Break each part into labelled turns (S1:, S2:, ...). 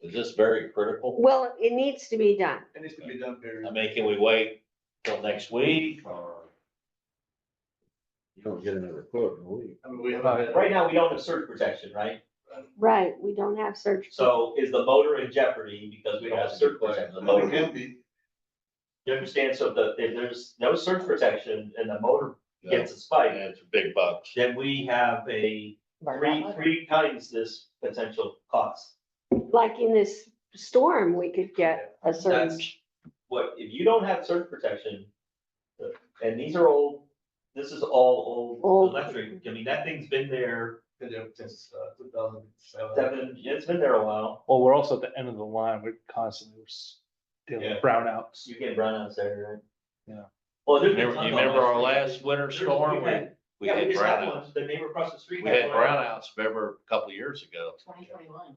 S1: Is this very critical?
S2: Well, it needs to be done.
S3: It needs to be done very.
S1: I
S4: Um,
S1: mean, can we wait till next week or?
S5: You don't get another quote in a week.
S3: I mean, we haven't had-
S4: Right now, we don't have surge protection, right?
S2: Right, we don't have search.
S4: So is the motor in jeopardy because we don't have surge protection? The
S3: It
S4: motor,
S3: can be,
S4: you understand, so the, if there's no surge protection and the motor gets a spike,
S1: It's big bucks.
S4: then we have a three, three times this potential cost.
S2: Like in this storm, we could get a
S4: That's
S2: surge.
S4: What, if you don't have surge protection, uh, and these are old, this is all
S2: Old.
S4: old electric, I mean, that thing's been there
S3: been there since, uh, two thousand seven.
S4: seven, it's been there a while.
S6: Well, we're also at the end of the line, we're constantly s- dealing
S3: Yeah.
S6: with brownouts.
S4: You get brownouts there, right?
S6: Yeah.
S4: Well, there's. been
S1: Remember,
S4: tons
S1: you
S4: of
S1: remember our
S4: electric-
S1: last winter
S4: There's-
S1: storm?
S4: we've
S1: We,
S4: had-
S1: we
S4: yeah,
S1: had
S4: just had one,
S1: brownouts.
S4: The neighbor across the street.
S1: We had
S4: one.
S1: brownouts, remember, a couple of years ago.
S7: Twenty twenty-one.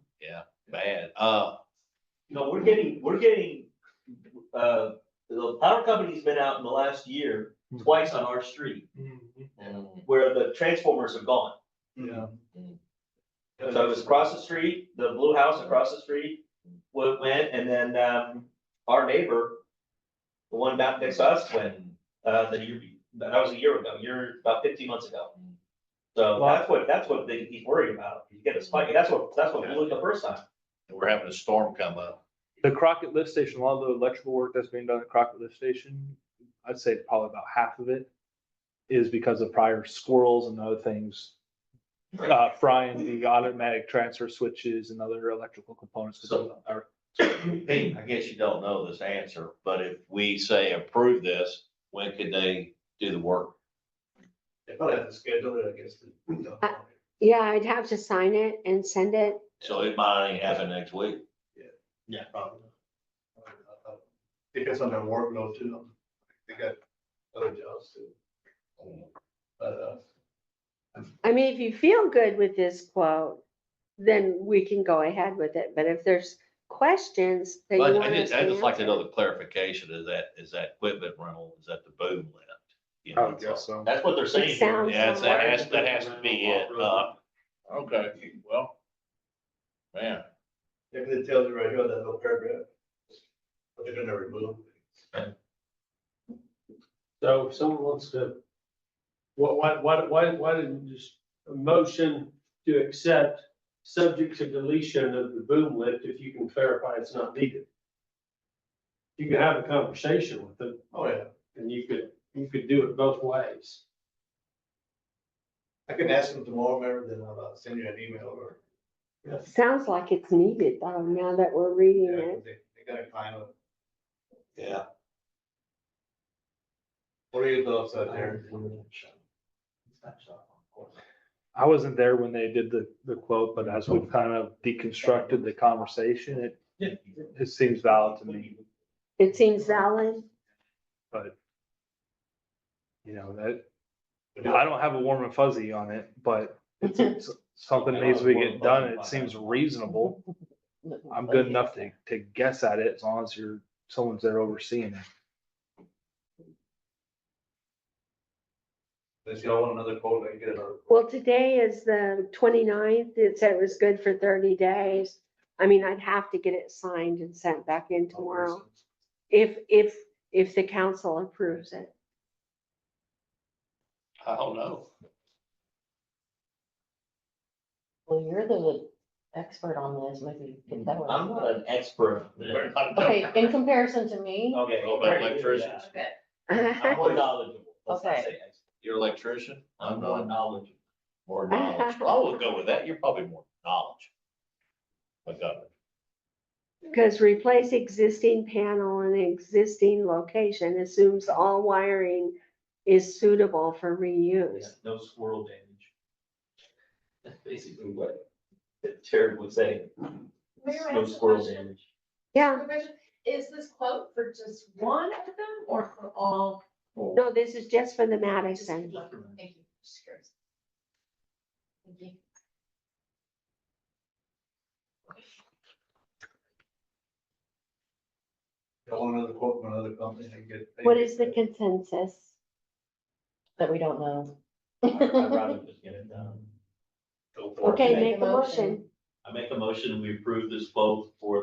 S1: Bad. Uh,
S4: You know, we're getting, we're getting, uh, the power company's been out in the last year
S1: Hmm.
S6: Mhm.
S4: twice on our street
S3: Mm-hmm.
S4: where the transformers have gone.
S6: Yeah.
S4: So it was across the street, the blue house across the street, wa- went, and then, um, our neighbor, the one back next to us went, uh, the year, be- that was a year ago, year, about fifteen months ago.
S6: Well-
S4: So that's what, that's what they, he's worried about, you get a spike, and that's what, that's what blew it the first time.
S1: we're having a storm come up.
S6: The Crockett lift station, a lot of the electrical work that's being done at Crockett lift station, I'd say probably about half of it is because of prior squirrels and other things, uh, frying the automatic transfer switches and other electrical components. 'cause
S1: So-
S6: those are-
S1: Hey, I guess you don't know this answer, but if we say approve this, when could they do the work?
S3: They probably have to schedule it, I guess. to-
S2: Yeah, I'd have to sign it and send it.
S1: So it might not happen next week.
S3: Yeah, probably. Depends on their workload too. They got other jobs too.
S4: Mm.
S3: But, uh,
S2: I mean, if you feel good with this quote, then we can go ahead with it. But if there's questions that you
S1: But
S2: want
S1: I
S2: us
S1: just,
S2: to
S1: I just like to
S2: answer-
S1: know the clarification, is that, is that equipment rental, is that the boom lift? You know,
S6: so.
S4: That's what they're saying.
S2: It sounds
S1: Yeah, it's- that
S2: like-
S1: has, that has to be it, uh. Okay, well, man.
S3: if it tells you right here, that little paragraph. But they're gonna remove.
S8: So if someone wants to, why, why, why, why, why didn't you just a motion to accept subject to deletion of the boom lift if you can clarify it's not needed? You could have a conversation with them
S3: Oh, yeah.
S8: and you could, you could do it both ways.
S3: I can ask them tomorrow, Mayor, then I'll uh, send you an email or.
S2: Sounds like it's needed though, now that we're reading
S3: Yeah,
S2: it.
S3: They they gotta climb up.
S1: Yeah.
S3: What are your thoughts out there?
S6: I wasn't there when they did the, the quote, but as we've kind of deconstructed the conversation, it, it seems valid to me.
S2: It seems valid.
S6: You know, that, I don't have a warm and fuzzy on it, but it's, it's something needs to be getting done. It seems reasonable. I'm good enough to, to guess at it as long as you're, someone's there overseeing it.
S3: Does y'all want another quote? I can get another. quote.
S2: Well, today is the 29th. It said it was good for thirty days. I mean, I'd have to get it signed and sent back in tomorrow if, if, if the council approves it.
S1: I don't know.
S7: Well, you're the expert on this, maybe you could tell
S4: I'm
S7: us.
S4: not an expert.
S7: Okay, in comparison to me,
S4: Okay.
S1: All about electricians.
S7: okay,
S2: Oh.
S4: I'm more knowledgeable. Let's not
S7: Okay.
S4: say expert.
S1: You're an electrician?
S4: I'm more knowledgeable.
S1: More knowledge. I would go with that. You're probably more knowledge. My God.
S2: Because replace existing panel in existing location assumes all wiring is suitable for reuse.
S4: No squirrel damage. That's basically what Jared would say.
S9: Mayor, I
S4: No
S9: have a
S4: squirrel
S9: question.
S4: damage.
S2: Yeah,
S9: Is this quote for just one of them or for all?
S2: no, this is just for the
S9: Just for
S2: Madison.
S9: one. Thank you. Just curious. Thank you.
S3: Y'all want another quote from another company? I can get. I can
S2: What
S3: get
S2: is the
S3: that.
S2: consensus?
S7: that we don't know.
S4: I'd I'd rather just get it done.
S3: Go for it.
S2: Okay,
S7: Make
S2: make
S7: a
S2: a
S7: motion.
S2: motion.
S4: I make a motion, we approve this vote for